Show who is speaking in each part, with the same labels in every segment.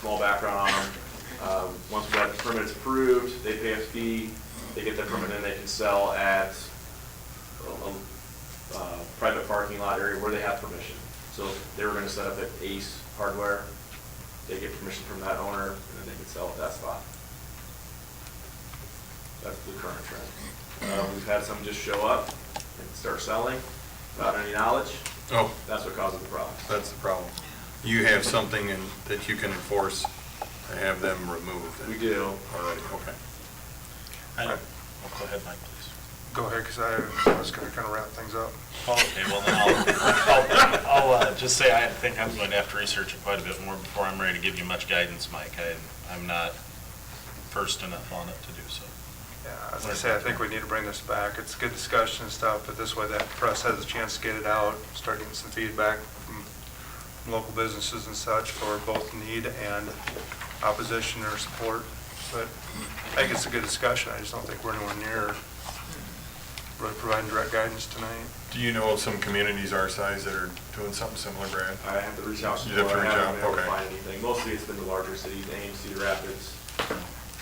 Speaker 1: small background on them. Um, Once we got the permits approved, they pay a fee, they get their permit, and they can sell at a- a, uh, private parking lot area where they have permission. So they were gonna set up at Ace Hardware, they get permission from that owner, and then they can sell at that spot. That's the current trend. Uh, We've had some just show up and start selling without any knowledge,
Speaker 2: Oh,
Speaker 1: that's what causes the problem.
Speaker 2: that's the problem. You have something in- that you can enforce to have them removed.
Speaker 1: We do.
Speaker 2: Already, okay.
Speaker 3: I don't, well, go ahead, Mike, please. Oh,
Speaker 4: Go ahead, because I was going to kind of wrap things up.
Speaker 3: Okay, well, then I'll, I'll, I'll uh, just say I think I'm going to have to research it quite a bit more before I'm ready to give you much guidance, Mike. I, I'm not versed enough on it to do so.
Speaker 4: Yeah, as I say, I think we need to bring this back. It's good discussion and stuff, but this way that press has a chance to get it out, start getting some feedback from from local businesses and such for both need and opposition or support. But I think it's a good discussion. I just don't think we're anywhere near really providing direct guidance tonight.
Speaker 2: Do you know of some communities our size that are doing something similar, Brad?
Speaker 1: I have to reach out to
Speaker 2: You'd have to
Speaker 1: people. I
Speaker 2: reach out,
Speaker 1: haven't been able to
Speaker 2: okay.
Speaker 1: find anything. Mostly it's been the larger cities, Ames, Cedar Rapids,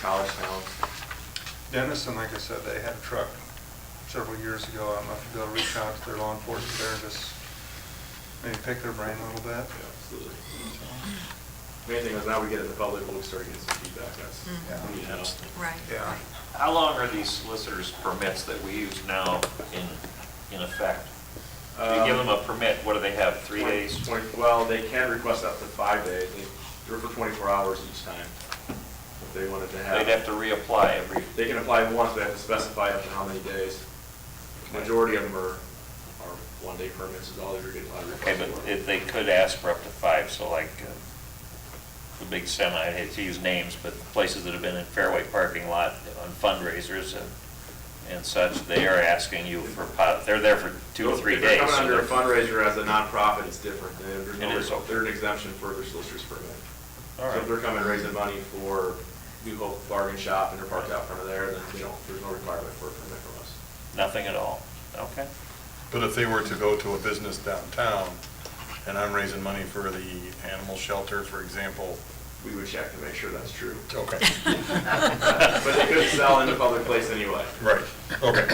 Speaker 1: college towns.
Speaker 4: Denison, like I said, they had a truck several years ago. I don't know if you'll reach out to their law enforcement there and just maybe pick their brain a little bit.
Speaker 1: Yeah, absolutely. Main thing is now we get it in the public, we'll start getting some feedback, that's,
Speaker 4: Mm.
Speaker 1: we need help.
Speaker 5: Right.
Speaker 4: Yeah.
Speaker 6: How long are these solicitors' permits that we use now in, in effect?
Speaker 1: Um,
Speaker 6: You give them a permit, what do they have, three
Speaker 1: Twenty-
Speaker 6: days?
Speaker 1: twenty- Well, they can request up to five days, they, they're for twenty-four hours each time, if they wanted to
Speaker 6: They'd
Speaker 1: have.
Speaker 6: have to reapply every,
Speaker 1: They can apply once, they have to specify up to how many days. Majority of them are, are one-day permits is all they're getting, a lot of
Speaker 6: okay,
Speaker 1: requests.
Speaker 6: but
Speaker 1: for.
Speaker 6: if they could ask for up to five, so like uh, the big semi, I hate to use names, but places that have been in Fairway parking lot on fundraisers and, and such, they are asking you for, pot- they're there for two or
Speaker 1: Those-
Speaker 6: three
Speaker 1: if
Speaker 6: days.
Speaker 1: they're
Speaker 6: so
Speaker 1: coming under a
Speaker 6: they're-
Speaker 1: fundraiser as a nonprofit, it's different. They- There's
Speaker 6: It is,
Speaker 1: no,
Speaker 6: okay.
Speaker 1: they're an exemption for their solicitor's permit.
Speaker 6: All
Speaker 1: So if
Speaker 6: right.
Speaker 1: they're coming raising money for New Hope Bargain Shop and they're parked out front of there, then they don't, there's no requirement for a permit from us.
Speaker 6: Nothing at all, okay?
Speaker 2: But if they were to go to a business downtown, and I'm raising money for the animal shelter, for example,
Speaker 1: We would check to make sure that's true.
Speaker 2: okay,
Speaker 1: But they couldn't sell in a public place anyway.
Speaker 2: right, okay.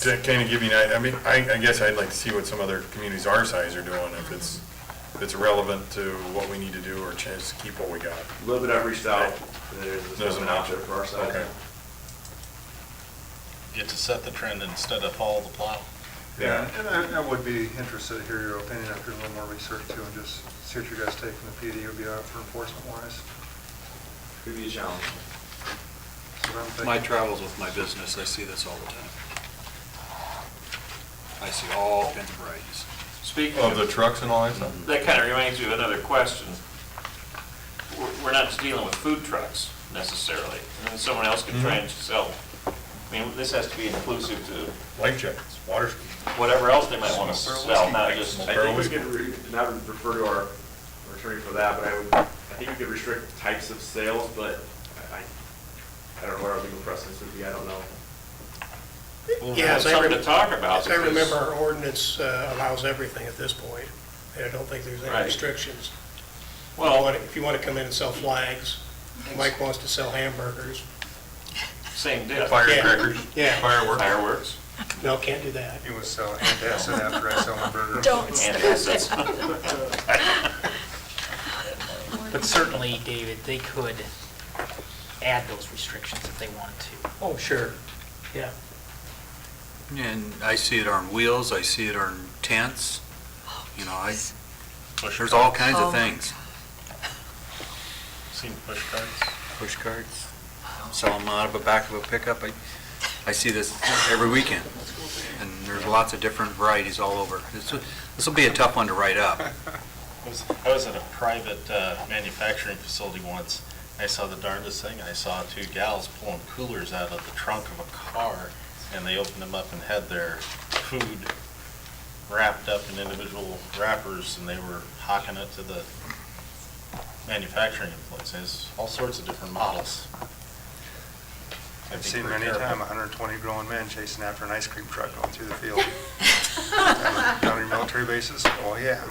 Speaker 2: To kind of give you, an I I mean, I, I guess I'd like to see what some other communities our size are doing, if it's, if it's relevant to what we need to do, or just keep what we got.
Speaker 1: A little bit I've reached out, there's
Speaker 2: There's
Speaker 1: an
Speaker 2: an
Speaker 1: out there
Speaker 2: option.
Speaker 1: for our side.
Speaker 2: Okay.
Speaker 3: Get to set the trend instead of follow the plow.
Speaker 4: Yeah, and I, I would be interested to hear your opinion after a little more research too, and just see what you guys take from the PD would be out for enforcement wise.
Speaker 1: Could be a challenge.
Speaker 4: So I'm thinking-
Speaker 7: My travels with my business, I see this all the time. I see all kinds of varieties.
Speaker 6: Speaking
Speaker 2: Of the trucks and all that stuff?
Speaker 6: That kind of reminds me of another question. We're- We're not just dealing with food trucks necessarily. I mean, Someone else could try and sell, I mean, this has to be inclusive to
Speaker 2: Life checks, water,
Speaker 6: whatever else they might want to sell, not just,
Speaker 1: I think we could re- not refer to our our attorney for that, but I would, I think we could restrict types of sales, but I, I don't know what our legal precedence would be, I don't know.
Speaker 8: Yeah, as I
Speaker 6: something to
Speaker 8: rem-
Speaker 6: talk about.
Speaker 8: As I
Speaker 6: because-
Speaker 8: remember, our ordinance uh, allows everything at this point, and I don't think there's
Speaker 6: Right.
Speaker 8: any restrictions.
Speaker 6: Well,
Speaker 8: If you want to come in and sell flags, Mike wants to sell hamburgers,
Speaker 6: same deal.
Speaker 2: firecrackers,
Speaker 8: Yeah.
Speaker 2: fireworks.
Speaker 6: Fireworks.
Speaker 8: no, can't do that.
Speaker 4: He was selling antacid after I sell my burger.
Speaker 5: Don't
Speaker 6: And
Speaker 5: start.
Speaker 6: assets.
Speaker 9: But certainly, David, they could add those restrictions if they wanted to.
Speaker 8: Oh, sure, yeah.
Speaker 7: And I see it on wheels, I see it on tents, you know, I,
Speaker 3: Push
Speaker 7: there's all kinds
Speaker 5: Oh,
Speaker 7: of
Speaker 5: my
Speaker 7: things.
Speaker 3: Seen push cards?
Speaker 7: Push carts,
Speaker 5: Oh.
Speaker 7: sell them out of the back of a pickup. I, I see this every weekend. And there's lots of different varieties all over. This, will- this will be a tough one to write up.
Speaker 3: I was- I was at a private uh, manufacturing facility once. I saw the darndest thing. I saw two gals pulling coolers out of the trunk of a car, and they opened them up and had their food wrapped up in individual wrappers, and they were hawking it to the manufacturing employees. There's all sorts of different models. Gotta be
Speaker 4: I've seen
Speaker 3: pretty
Speaker 4: many a
Speaker 3: careful.
Speaker 4: time, a hundred and twenty grown men chasing after an ice cream truck going through the field. Down in military bases, oh yeah.